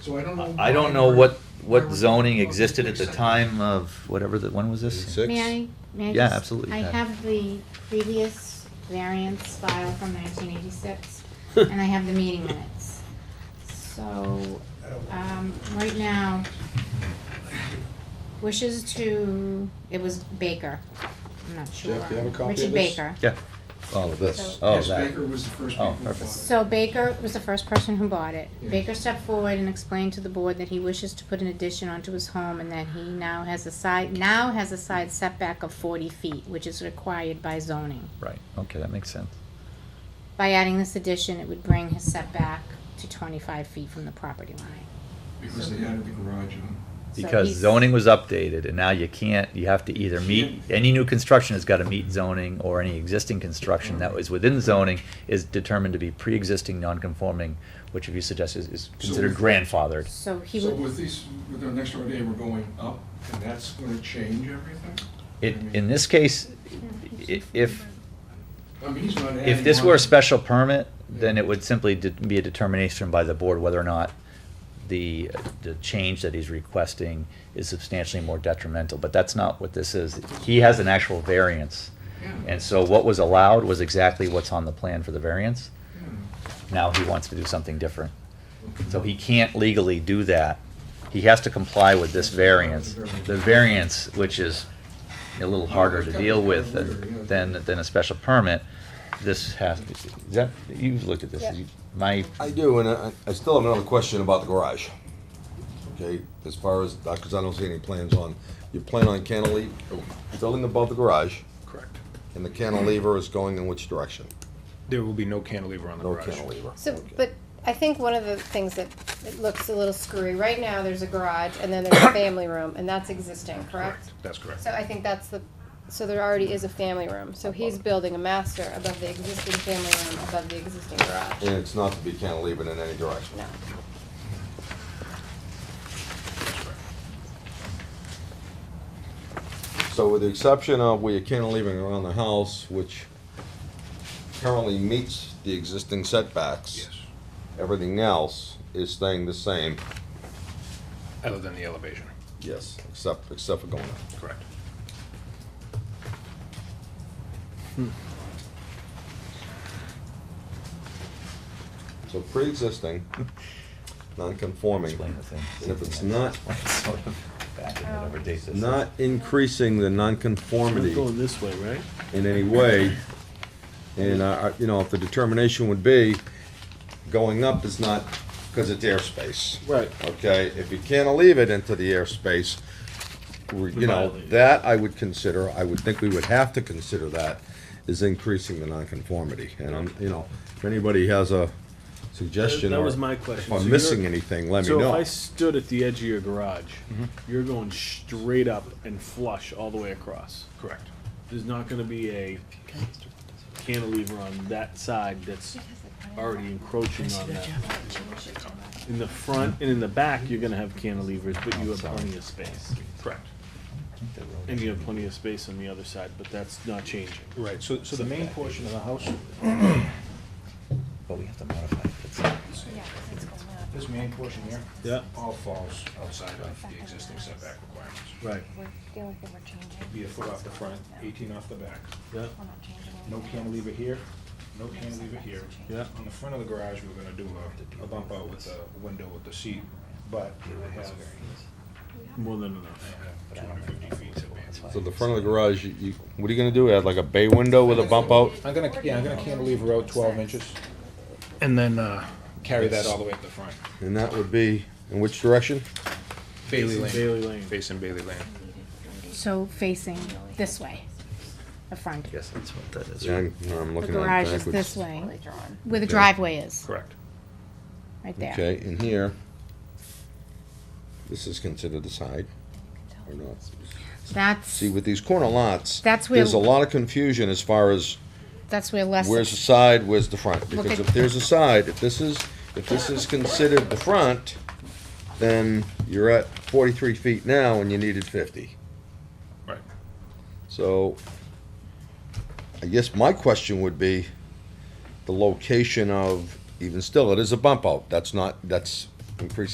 So I don't know. I why don't know we're- what, why what we're zoning talking about existed at the septic. time of, whatever, the when was this? Eighty-six. May I, may I Yeah, just- absolutely, I Pat. have the previous variance file from nineteen eighty-six, and I have the meeting minutes. So, um, right now, wishes to, it was Baker, I'm not sure. Jeff, do you have a copy of Richard this? Baker. Yeah, all of this, So- oh, Yes, that. Baker was the first Oh, people who perfect. bought it. So Baker was the first person who bought it. Yeah. Baker stepped forward and explained to the board that he wishes to put an addition onto his home and that he now has a side, now has a side setback of forty feet, which is required by zoning. Right, okay, that makes sense. By adding this addition, it would bring his setback to twenty-five feet from the property line. Because they added the garage on. So Because he's- zoning was updated and now you can't, you have to either meet, any new construction has gotta meet zoning or any existing construction that was within zoning is determined to be pre-existing, non-conforming, which if you suggest is, is So considered with- grandfathered. So he So would, with these, with our next door neighbor going up, and that's gonna change everything? It, I mean- in this case, i- if, I mean, he's not if adding this on- were a special permit, then it would simply de- be a determination by the board whether or not the, the change that he's requesting is substantially more detrimental, but that's not what this is. He has an actual variance. Yeah. And so what was allowed was exactly what's on the plan for the variance. Yeah. Now he wants to do something different. So he can't legally do that. He has to comply with this variance. The variance, which is a little harder to deal with than, than, than a special permit, this has, is that, you've looked at this. Yeah. My, I do, and I, I still have another question about the garage. Okay, as far as, because I don't see any plans on, you plan on cantilever, building above the garage, Correct. and the cantilever is going in which direction? There will be no cantilever on the No garage. cantilever. So, Okay. but I think one of the things that it looks a little screwy, right now, there's a garage and then there's a family room, and that's existing, correct? That's correct. So I think that's the, so there already is a family room, so he's building a master above the existing family room, above the existing And garage. it's not to be cantilevered in any direction? No. So with the exception of where you're cantilevering around the house, which currently meets the existing setbacks. Yes, Everything else is staying the same. other than the elevation, Yes. Except, except for going up. correct. So pre-existing, non-conforming. explain the thing. And if it's not, Sort of back in whatever date this is. not increasing the We're non-conformity going this way, right? in any way, and, uh, you know, if the determination would be, going up is not, because it's airspace. Right. Okay, if you can't leave it into the airspace, we- you know, Violate it. that I would consider, I would think we would have to consider that, is increasing the nonconformity. And I'm, you know, if anybody has a suggestion That- that or was my if question. So I'm you're- missing anything, let me So if I know. stood at the edge of your garage, you're going straight up and flush all the way across. Correct. There's not gonna be a cantilever on that side that's already encroaching on that. In the front and in the back, you're gonna have cantilevers, but you have plenty of space. Correct. And you have plenty of space on the other side, but that's not changing. Right, so, so the main portion of the house, But we have to modify it. It's- this main portion here, Yeah. all falls outside of the existing setback requirements. Right, The only thing we're changing. Be a foot off the front, eighteen off the back. yeah, No cantilever here, no cantilever here. yeah. On the front of the garage, we're gonna do a, a bump out with the window with the seat, but it would have uh, More than enough. two hundred fifty feet to be. So the front of the garage, you- you, what are you gonna do, add like a bay window with a bump out? I'm gonna, yeah, I'm gonna cantilever out twelve inches. And then, uh, carry that all the way up the front. And that would be, in which direction? Bailey Lane, Bailey Lane. facing Bailey Lane. so facing this way, the front. Yes, that's what that is. Yeah, I'm I'm The looking at it garage is backwards. this way, where the driveway is, Correct. right there. Okay, and here, this is considered the side, or not? That's, See, with these corner lots. That's where- There's a lot of confusion as far as that's where less. where's the side, where's the front. Look Because at- if there's a side, if this is, if this is considered the front, then you're at forty-three feet now and you needed fifty. Right. So, I guess my question would be, the location of, even still, it is a bump out, that's not, that's increasing